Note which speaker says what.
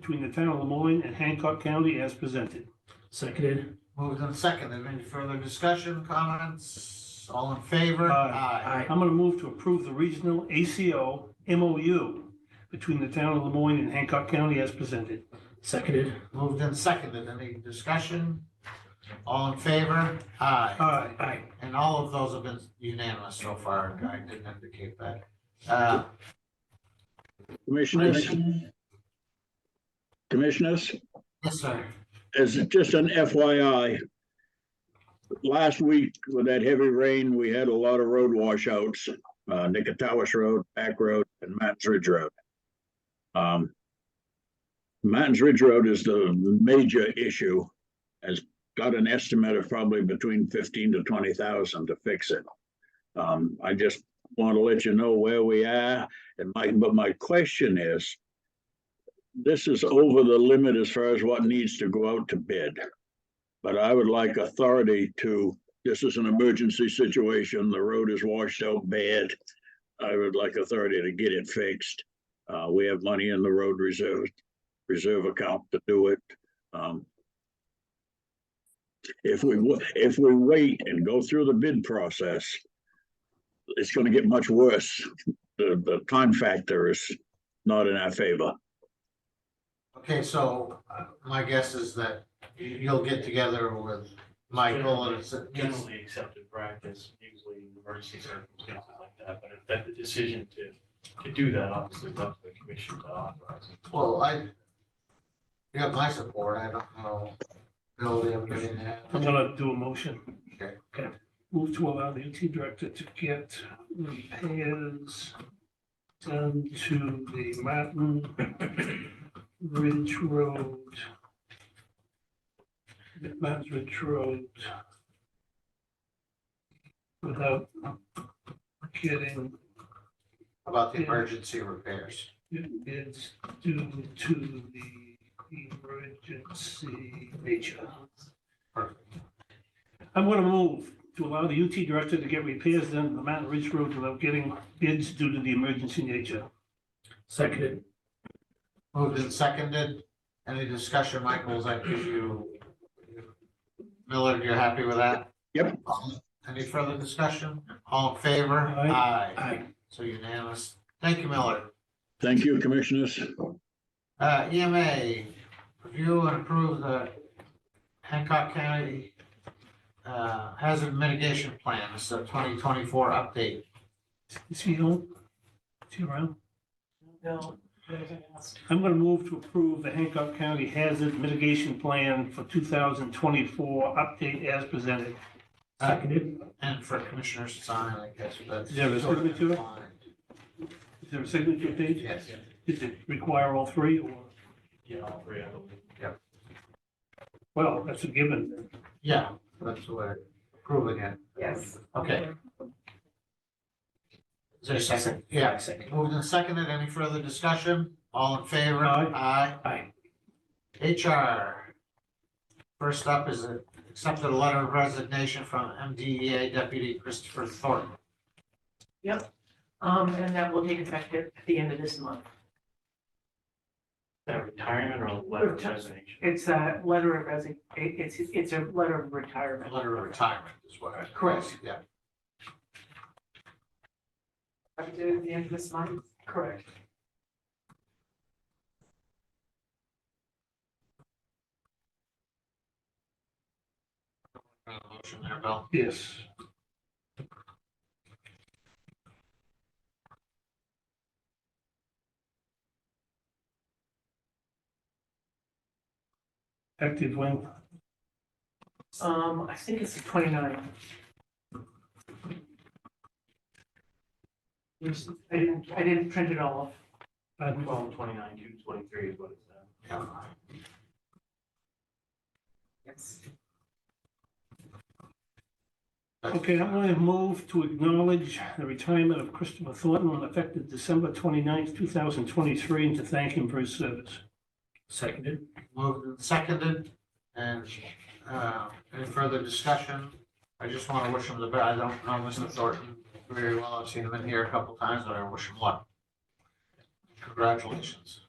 Speaker 1: between the town of Lemoyne and Hancock County as presented.
Speaker 2: Seconded.
Speaker 3: Moved and seconded. Any further discussion, comments? All in favor?
Speaker 2: Aye.
Speaker 1: I'm going to move to approve the regional ACO MOU between the town of Lemoyne and Hancock County as presented.
Speaker 2: Seconded.
Speaker 3: Moved and seconded. Any discussion? All in favor? Aye.
Speaker 1: Aye.
Speaker 2: Aye.
Speaker 3: And all of those have been unanimous so far. I didn't indicate that. Uh,
Speaker 4: Commissioners, commissioners,
Speaker 3: yes, sir.
Speaker 4: as just an FYI. Last week with that heavy rain, we had a lot of road washouts, uh, Nicatawas Road, Back Road and Mountains Ridge Road. Um. Mountains Ridge Road is the major issue, has got an estimate of probably between fifteen to twenty thousand to fix it. Um, I just want to let you know where we are and my, but my question is this is over the limit as far as what needs to go out to bid. But I would like authority to, this is an emergency situation, the road is washed out bad. I would like authority to get it fixed. Uh, we have money in the road reserve, reserve account to do it. Um. If we, wa- if we wait and go through the bid process, it's gonna get much worse. The, the time factor is not in our favor.
Speaker 3: Okay, so uh, my guess is that you- you'll get together with Michael and it's, it's-
Speaker 5: generally accepted practice, usually in emergency circumstances like that, but if that the decision to, to do that, obviously, it's up to the commission to authorize.
Speaker 3: well, I you have my support. I don't know. Bill, do you have anything to add?
Speaker 1: I'm going to do a motion.
Speaker 3: Okay.
Speaker 1: Okay. Move to allow the UT director to get repairs done to the Mountain Ridge Road. Mountain Ridge Road. Without getting
Speaker 3: About the emergency repairs.
Speaker 1: bids due to the emergency nature.
Speaker 3: Perfect.
Speaker 1: I'm going to move to allow the UT director to get repairs done on the Mountain Ridge Road without getting bids due to the emergency nature.
Speaker 2: Seconded.
Speaker 3: Moved and seconded. Any discussion, Michael, as I give you? Miller, you're happy with that?
Speaker 4: Yep.
Speaker 3: All- Any further discussion? All in favor?
Speaker 1: Aye.
Speaker 2: Aye.
Speaker 3: So unanimous. Thank you, Miller.
Speaker 4: Thank you, commissioners.
Speaker 3: Uh, EMA, review and approve the Hancock County uh, hazard mitigation plan. It's a twenty twenty-four update.
Speaker 1: Is he home? Is he around?
Speaker 6: No, anything else?
Speaker 1: I'm going to move to approve the Hancock County Hazard Mitigation Plan for 2024 update as presented.
Speaker 3: Uh,
Speaker 2: Seconded.
Speaker 3: And for Commissioner to sign, I guess, but.
Speaker 1: Yeah, but it's gonna be two. Is there a signature page?
Speaker 3: Yes.
Speaker 1: Does it require all three or,
Speaker 5: Yeah, all three, I believe.
Speaker 1: well, that's a given.
Speaker 3: Yeah, that's the way, approving it.
Speaker 6: Yes.
Speaker 3: Okay. Is there a second? Yeah.
Speaker 2: Seconded.
Speaker 3: Moved and seconded. Any further discussion? All in favor?
Speaker 1: Aye.
Speaker 2: Aye.
Speaker 3: HR. First up is a- accepted a letter of resignation from MDEA Deputy Christopher Thornton.
Speaker 6: Um, and that will take effect at the end of this month.
Speaker 5: That retirement or letter of resignation?
Speaker 6: It's a letter of resign, it- it's, it's a letter of retirement.
Speaker 3: Letter of retirement is what I. Correct. Yeah.
Speaker 6: Up to the end of this month? Correct.
Speaker 3: Got a Motion there, Bill.
Speaker 1: Yes. Active when?
Speaker 6: Um, I think it's the twenty-nine. I didn't, I didn't print it all.
Speaker 1: Pardon?
Speaker 5: Twelve, twenty-nine, two, twenty-three is what it's, uh,
Speaker 3: Yeah.
Speaker 6: Yes.
Speaker 1: Okay, I'm going to move to acknowledge the retirement of Christopher Thornton on effective December 29th, 2023, and to thank him for his service.
Speaker 2: Seconded.
Speaker 3: Moved and seconded, and, uh, any further discussion? I just want to wish him the best. I don't know Mr. Thornton very well. I've seen him in here a couple times, but I wish him luck. Congratulations.